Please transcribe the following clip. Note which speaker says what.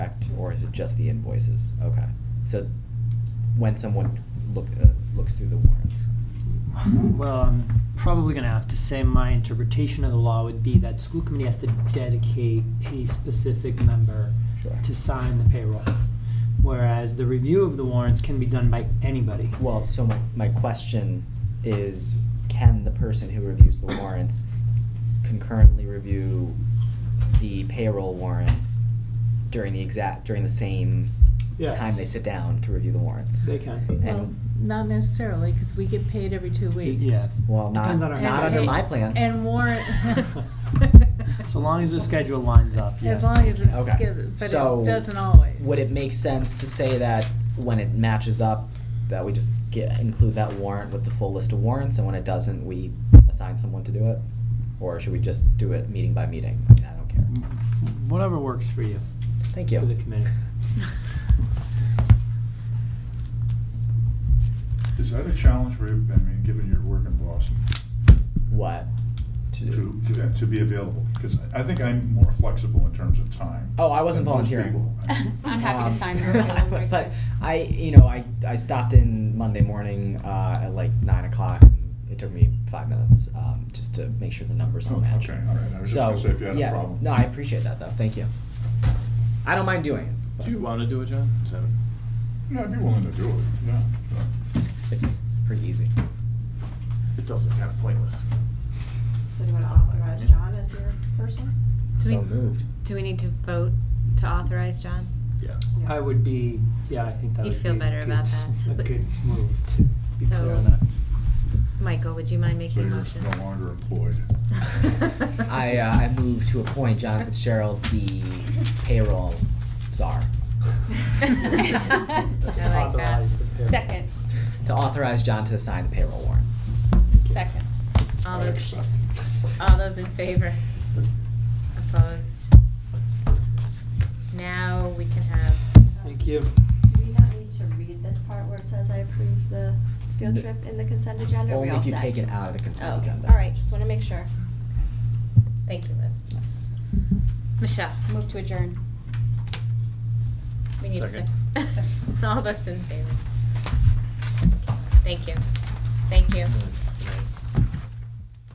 Speaker 1: or is it just the invoices? Okay, so when someone look, uh, looks through the warrants.
Speaker 2: Well, I'm probably gonna have to say my interpretation of the law would be that school committee has to dedicate a specific member
Speaker 1: Sure.
Speaker 2: to sign the payroll. Whereas the review of the warrants can be done by anybody.
Speaker 1: Well, so my, my question is, can the person who reviews the warrants concurrently review the payroll warrant during the exact, during the same time they
Speaker 2: Yes.
Speaker 1: sit down to review the warrants?
Speaker 2: They can.
Speaker 1: And-
Speaker 3: Well, not necessarily, because we get paid every two weeks.
Speaker 2: Yeah.
Speaker 1: Well, not,
Speaker 2: Depends on our-
Speaker 1: not under
Speaker 3: And-
Speaker 1: my plan.
Speaker 3: And warrant.
Speaker 2: So long as the schedule lines up, yes.
Speaker 3: As long as it's,
Speaker 1: Okay.
Speaker 3: scheduled, but
Speaker 1: So,
Speaker 3: it doesn't always.
Speaker 1: Would it make sense to say that when it matches up, that we just get, include that warrant with the full list of warrants, and when it doesn't, we assign someone to do it? Or should we just do it meeting by meeting? I mean, I don't care.
Speaker 2: Whatever works for you,
Speaker 1: Thank
Speaker 2: for the
Speaker 1: you.
Speaker 2: committee.
Speaker 4: Is that a challenge for you, I mean, given your work in Boston,
Speaker 1: What?
Speaker 4: to, to- to be available? Because I think I'm more flexible in terms of time.
Speaker 1: Oh, I wasn't
Speaker 4: than most
Speaker 1: volunteering.
Speaker 4: people.
Speaker 5: I'm happy
Speaker 1: Um,
Speaker 5: to sign the real quick.
Speaker 1: But I, you know, I, I stopped in Monday morning uh, at like nine o'clock. and It took me five minutes um, just to make sure the numbers
Speaker 4: Oh,
Speaker 1: all match.
Speaker 4: okay, all right. I was just
Speaker 1: So,
Speaker 4: gonna say if you had a
Speaker 1: yeah,
Speaker 4: problem.
Speaker 1: No, I appreciate that though. Thank you. I don't mind doing it. but
Speaker 6: Do you want to do it, John? Is that-
Speaker 4: Yeah, I'd be willing to do it, yeah. sure.
Speaker 1: It's pretty easy.
Speaker 6: It's also kind of pointless.
Speaker 7: So do you want to authorize John as your person?
Speaker 5: Do we-
Speaker 1: so moved.
Speaker 5: Do we need to vote to authorize John?
Speaker 6: Yeah.
Speaker 2: I would be, yeah, I think that
Speaker 5: You'd
Speaker 2: would be
Speaker 5: feel
Speaker 2: a
Speaker 5: better
Speaker 2: good,
Speaker 5: about
Speaker 2: s-
Speaker 5: that.
Speaker 2: a
Speaker 5: But-
Speaker 2: good move to be
Speaker 5: So-
Speaker 2: clear on that.
Speaker 5: Michael, would you mind making a
Speaker 4: So
Speaker 5: motion?
Speaker 4: you're no longer employed.
Speaker 1: I, uh, I move to appoint John Fitzgerald the payroll czar
Speaker 5: I like that.
Speaker 2: Authorize the payroll.
Speaker 5: Second,
Speaker 1: to authorize John to sign the payroll warrant.
Speaker 5: second. All
Speaker 4: I
Speaker 5: those,
Speaker 4: accept.
Speaker 5: all those in favor? Opposed? Now we can have,
Speaker 2: Thank you.
Speaker 7: Do we not need to read this part where it says I approve the field trip in the consent agenda? Are we
Speaker 1: Only
Speaker 7: all
Speaker 1: if you
Speaker 7: set?
Speaker 1: take it out of the consent
Speaker 7: Oh, okay.
Speaker 1: agenda.
Speaker 7: All right, just want to make sure.
Speaker 5: thank you, Liz. Michelle,
Speaker 7: Move to adjourn.
Speaker 5: we need a
Speaker 6: Second.
Speaker 5: second. All those in favor? Thank you. Thank you.